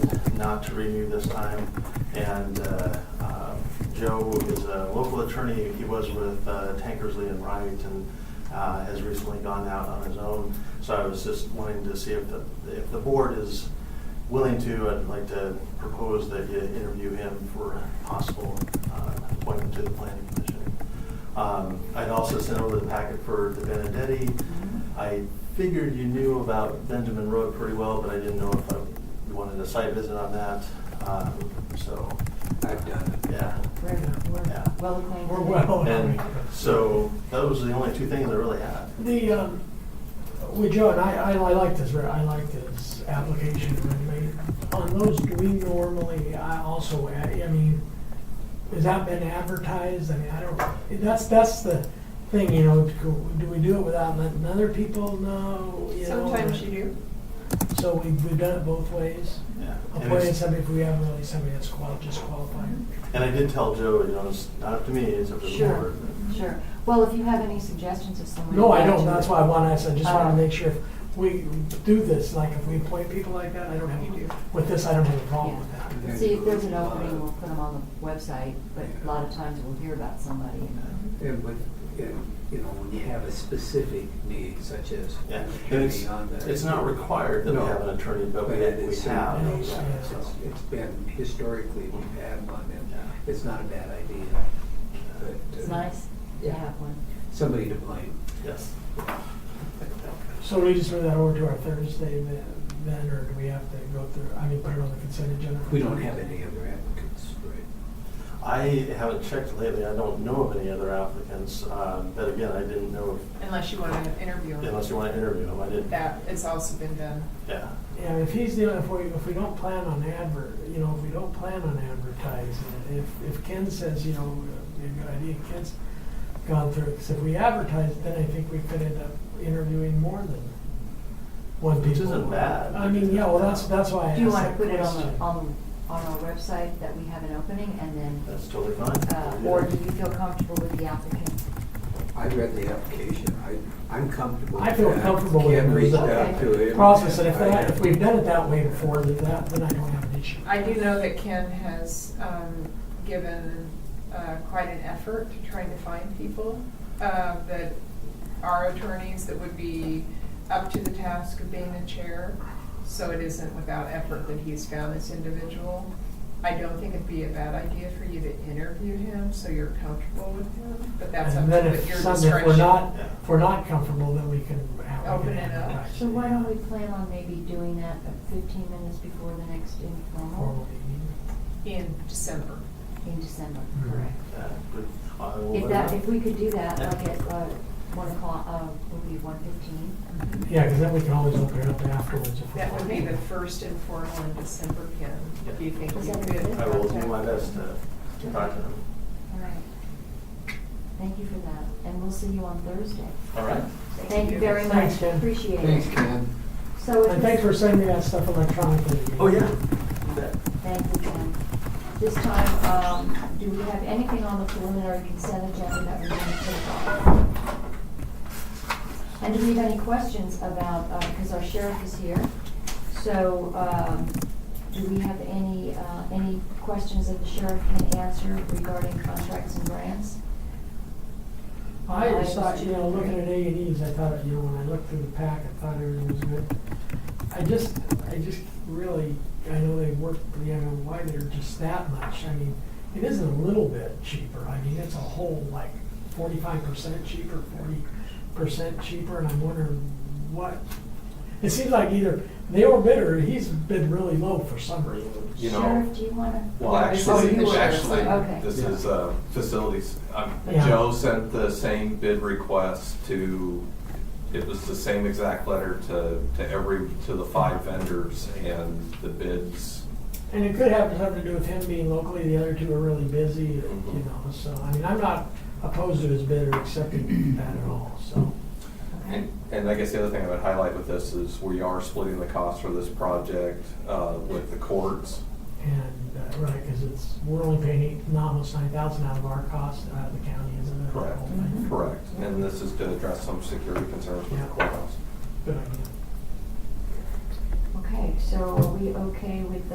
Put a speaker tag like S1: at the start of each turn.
S1: not to renew this time. And uh, uh, Joe is a local attorney. He was with uh, Tankersley and Wright and uh, has recently gone out on his own. So I was just wanting to see if the, if the board is willing to, I'd like to propose that you interview him for a possible uh, appointment to the planning commission. Um, I'd also sent over the packet for the Benedetti. I figured you knew about Benjamin Road pretty well, but I didn't know if I- you wanted a site visit on that, Um, so.
S2: I've done it.
S1: Yeah.
S3: We're,
S1: Yeah.
S3: we're well acquainted.
S4: We're well.
S1: And so those are the only two things I really had.
S4: The, um, with Joe, and I, I I like this, ver- I like this application, I mean, on those, do we normally, I also, I I mean, has that been advertised, I mean, I don't, that's, that's the thing, you know, do do we do it without letting other people know, you know?
S3: Sometimes you do.
S4: So we- we've done it both ways,
S1: Yeah. And
S4: appointing
S1: it's-
S4: somebody if we have really somebody that's qual, just
S3: Mm-hmm.
S4: qualified.
S1: and I did tell Joe, you know, it's not up to me, it's up to the
S3: Sure.
S1: board.
S3: Sure. Well, if you have any suggestions of someone.
S4: No, I
S3: to
S4: don't,
S3: add to
S4: that's
S3: it.
S4: why I want, I said, just want
S3: Uh,
S4: to make sure if we do this, like if we appoint people like that, I don't have,
S3: You do.
S4: with this, I don't have a problem with
S3: Yeah.
S4: that.
S3: See, if there's an opening, we'll put them on the website, but a lot of times we'll hear about somebody. and-
S2: And with, and, you know, when you have a specific need such as.
S1: Yeah. And it's,
S2: attorney on there,
S1: it's not required that we
S2: No.
S1: have an attorney, but we
S2: it
S1: we
S2: is-
S1: have.
S2: it's-
S1: yeah,
S2: It's
S1: so,
S2: it's been historically, we've had one and
S1: Yeah.
S2: it's not a bad idea. but, uh,
S3: It's nice to
S2: Yeah.
S3: have one.
S2: Somebody to blame.
S1: Yes.
S4: So we just move that over to our Thursday then- then, or do we have to go through, I mean, put it on the consent agenda?
S2: We don't have any other applicants, right?
S1: I haven't checked lately. I don't know of any other applicants. Um, But again, I didn't know if-
S5: Unless you want to interview him.
S1: unless you want to interview them. I didn't.
S5: That has also been done.
S1: Yeah.
S4: Yeah, if he's the, if we, if we don't plan on advert, you know, if we don't plan on advertising, it, if, if Ken says, you know, uh, a good idea, Ken's gone through, because if we advertise, then I think we could end up interviewing more than one people.
S1: Which isn't bad.
S4: I mean, yeah, well, that's, that's why I asked
S3: Do you want
S4: that
S3: to put it on,
S4: question.
S3: the- on, on our website that we have an opening and then,
S1: That's totally fine.
S3: uh, or do you feel comfortable with the applicant?
S2: I read the application. I, I'm comfortable.
S4: I feel
S2: with that.
S4: comfortable with
S2: Ken
S4: it.
S2: reached
S3: Okay.
S2: out to him.
S4: Process, and if
S2: I-
S4: that, if we've done it that way before, then that, then I don't have an issue.
S5: I do know that Ken has um, given uh, quite an effort to trying to find people uh, that are attorneys that would be up to the task of being a chair. So it isn't without effort that he's found this individual. I don't think it'd be a bad idea for you to interview him so you're comfortable with him, but that's up
S4: And
S5: to
S4: then
S5: your
S4: if
S5: discretion.
S4: some, if we're not,
S1: Yeah.
S4: if we're not comfortable, then we can, uh, we
S5: Open
S4: can
S5: it up.
S4: advertise.
S3: So why don't we plan on maybe doing that uh, fifteen minutes before the next informal
S4: Formal meeting.
S5: In December.
S3: in December,
S4: Mhm.
S3: correct?
S1: Yeah, good. I will
S3: If
S1: let
S3: that,
S1: them
S3: if
S1: know.
S3: we could do that,
S1: Yeah.
S3: like at, uh, one o'clock, uh, would be one fifteen?
S4: Yeah, because then we can always open it up afterwards if we
S5: That would be the
S4: want.
S5: first informal in December, Ken. Do you think
S3: Is
S5: you
S3: that
S5: could?
S3: good?
S1: I will do my best to to talk to them.
S3: All right. Thank you for that, and we'll see you on Thursday.
S1: All right.
S3: Thank you very
S4: Thanks,
S3: much,
S4: Jen.
S3: appreciate it.
S2: Thanks, Ken.
S3: So. if
S4: And thanks for
S3: this-
S4: sending that stuff electronically.
S1: Oh, yeah. You bet.
S3: Thank you, Ken. This time, um, do we have anything on the preliminary consent agenda that we want to take off? And do we have any questions about, uh, because our sheriff is here, so, um, do we have any, uh, any questions that the sheriff can answer regarding contracts and grants?
S4: I just thought, you know, looking at A and E's, I thought, you know, when I looked through the pack, I thought everything was good. I just, I just really, I know they work, but I don't know why they're just that much. I mean, it isn't a little bit cheaper. I mean, it's a whole like forty-five percent cheaper, forty percent cheaper, and I'm wondering what. It seems like either they were bitter, or he's been really low for some reason.
S6: You know-
S3: Sheriff, do you wanna?
S6: Well,
S5: Yeah,
S3: oh,
S6: actually,
S3: you were-
S6: actually,
S3: okay.
S6: this is uh, facilities. Um,
S4: Yeah.
S6: Joe sent the same bid request to, it was the same exact letter to, to every, to the five vendors and the bids.
S4: And it could have something to do with him being locally, the other two are really busy, you know, so, I mean, I'm not opposed to his bid or accepting that at all, so.
S6: And and I guess the other thing I would highlight with this is we are splitting the cost for this project uh, with the courts.
S4: And, uh, right, because it's, we're only paying eight, almost nine thousand out of our cost, out of the county, isn't it?
S6: Correct.
S3: Mhm.
S6: Correct. And this is to address some security concerns with the
S4: Yeah.
S6: courthouse.
S4: Good idea.
S3: Okay, so are we okay with